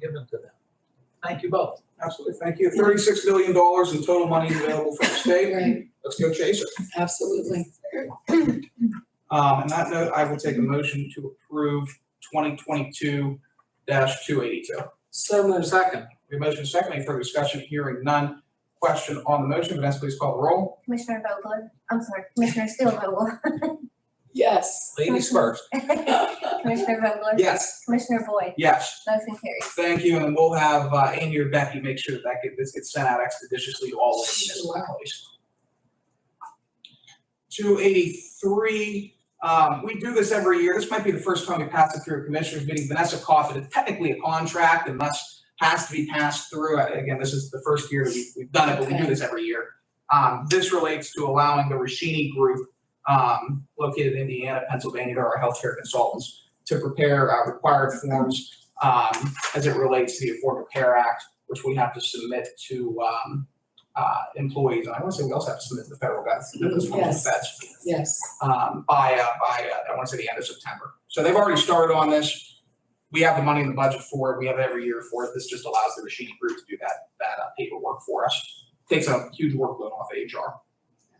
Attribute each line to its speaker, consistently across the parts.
Speaker 1: given to them. Thank you both.
Speaker 2: Absolutely, thank you. Thirty-six million dollars in total money available from the state.
Speaker 3: Right,
Speaker 2: Let's go chase it.
Speaker 3: absolutely.
Speaker 2: Um, and that note, I will take a motion to approve twenty twenty-two two eighty-two.
Speaker 3: So moved.
Speaker 2: Second, we have a motion second, any further discussion, hearing none. Question on the motion, Vanessa, please call the roll.
Speaker 4: Commissioner Vogler, I'm sorry, Commissioner Steelvogel,
Speaker 3: Yes.
Speaker 2: Ladies first.
Speaker 4: Commissioner Vogler?
Speaker 2: Yes.
Speaker 4: Commissioner Boyd,
Speaker 2: Yes.
Speaker 4: motion carries.
Speaker 2: Thank you, and we'll have uh, Andy or Becky make sure that that get, this gets sent out expeditiously to all of the municipalities. Two eighty-three, um, we do this every year, this might be the first time we pass it through a commissioners meeting, Vanessa Coffin, it's technically a contract and must, has to be passed through, Uh, again, this is the first year that we've, we've done it, but we do
Speaker 3: Okay.
Speaker 2: this every year. Um, this relates to allowing the Rashini Group, um, located in Indiana, Pennsylvania, to our healthcare consultants to prepare, uh, required forms, um, as it relates to the Affordable Care Act, which we have to submit to um, uh, employees. And I want to say we also have to submit to the federal government, this one,
Speaker 3: Yes.
Speaker 2: that's
Speaker 3: Yes,
Speaker 2: um, by, uh, by, uh, I want to say the end of September. So they've already started on this. We have the money in the budget for it. We have it every year for it. This just allows the Rashidi Group to do that, that uh, paperwork for us. Takes a huge workload off HR.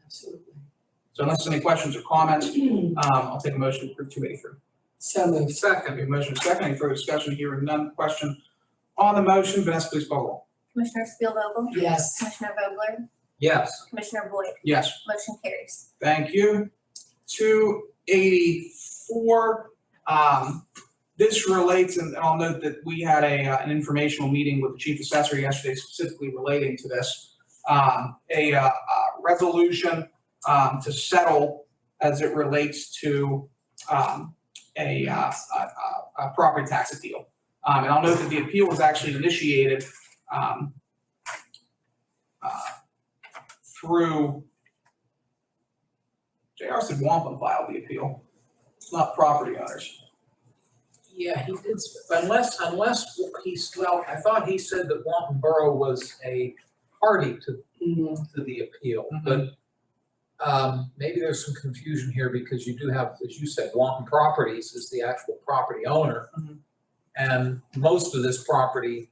Speaker 3: absolutely.
Speaker 2: So unless there's any questions or comments, um, I'll take a motion to approve two eighty-three.
Speaker 3: So moved.
Speaker 2: Second, we have a motion second, any further discussion, hearing none, question on the motion, Vanessa, please call the roll.
Speaker 4: Commissioner Steelvogel,
Speaker 3: Yes.
Speaker 4: Commissioner Vogler,
Speaker 2: Yes.
Speaker 4: Commissioner Boyd,
Speaker 2: Yes,
Speaker 4: motion carries.
Speaker 2: thank you. Two eighty-four, um, this relates, and I'll note that we had a, uh, an informational meeting with the chief assessor yesterday specifically relating to this. Um, a, uh, uh, resolution, um, to settle as it relates to, um, a, uh, a, a, a property tax appeal. Um, and I'll note that the appeal was actually initiated, um, uh, through, JR said Wampum filed the appeal, It's not property owners.
Speaker 1: Yeah, he did, sp- unless, unless he's, well, I thought he said that Wanton Borough was a party to,
Speaker 3: Mm,
Speaker 1: to the appeal, but um, maybe there's some confusion here because you do have, as you said, Wanton Properties is the actual property owner.
Speaker 2: Mhm.
Speaker 1: And most of this property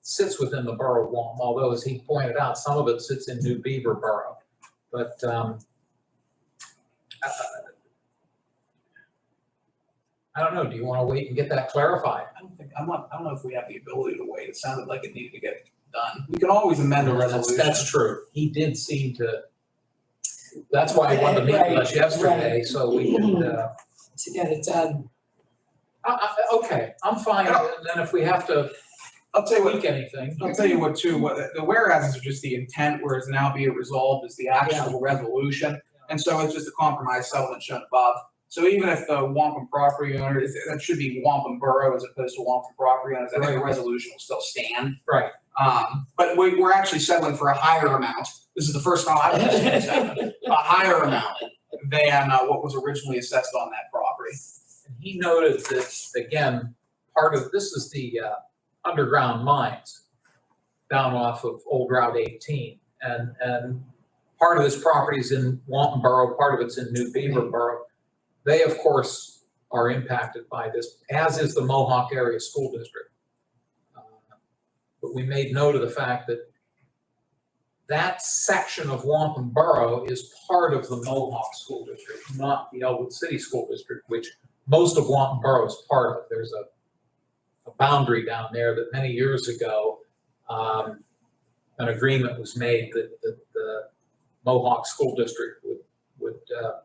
Speaker 1: sits within the borough of Wanton, although as he pointed out, some of it sits in New Beaver Borough. But, um, uh, I don't know, do you want to wait and get that clarified?
Speaker 2: I don't think, I'm not, I don't know if we have the ability to wait, it sounded like it needed to get done. We can always amend a
Speaker 1: That's-
Speaker 2: resolution.
Speaker 1: That's true. He did seem to, that's why he wanted to meet with us
Speaker 3: Right,
Speaker 1: yesterday,
Speaker 3: right.
Speaker 1: so we could, uh,
Speaker 3: To get it done.
Speaker 1: I, I, okay, I'm fine, and then if we have to
Speaker 2: I'll tell you what,
Speaker 1: tweak anything,
Speaker 2: I'll tell you what too, what, the whereas are just the intent, whereas now be it resolved is the actual resolution. And so it's just a compromise settlement shown above. So even if the Wampum property owner is, that should be Wampum Borough as opposed to Wampum property owners, I think the resolution will still stand.
Speaker 1: Right.
Speaker 2: Um, but we, we're actually settling for a higher amount. This is the first time I've ever seen this happen. a higher amount than uh, what was originally assessed on that property.
Speaker 1: and he noted that, again, part of, this is the, uh, underground mines down off of Old Route eighteen, and, and part of this property is in Wanton Borough, part of it's in New Beaver Borough. They, of course, are impacted by this, as is the Mohawk Area School District. Uh, But we made note of the fact that that section of Wanton Borough is part of the Mohawk School District, not the Elwood City School District, which most of Wanton Borough is part of. There's a, a boundary down there that many years ago, um, an agreement was made that, that the Mohawk School District would, would, uh,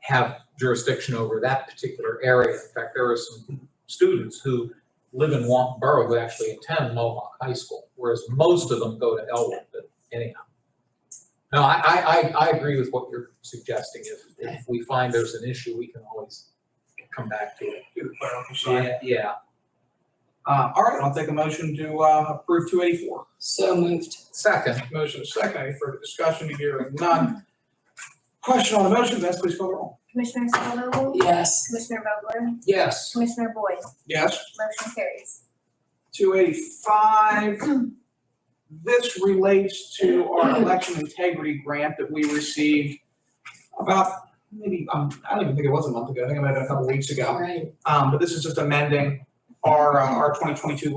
Speaker 1: have jurisdiction over that particular area. In fact, there are some students who live in Wanton Borough who actually attend Mohawk High School, whereas most of them go to Elwood, but anyhow. No, I, I, I, I agree with what you're suggesting. If, if we find there's an issue, we can always come back to it. Yeah, yeah.
Speaker 2: Uh, all right, I'll take a motion to uh, approve two eighty-four.
Speaker 3: So moved.
Speaker 1: Second,
Speaker 2: Motion is second, any further discussion, hearing none. Question on the motion, Vanessa, please call the roll.
Speaker 4: Commissioner Steelvogel,
Speaker 3: Yes.
Speaker 4: Commissioner Vogler,
Speaker 1: yes.
Speaker 4: Commissioner Boyd,
Speaker 2: Yes.
Speaker 4: motion carries.
Speaker 2: Two eighty-five. This relates to our election integrity grant that we received about maybe, um, I don't even think it was a month ago, I think it might have been a couple weeks ago.
Speaker 3: All right.
Speaker 2: Um, but this is just amending our, uh, our twenty twenty-two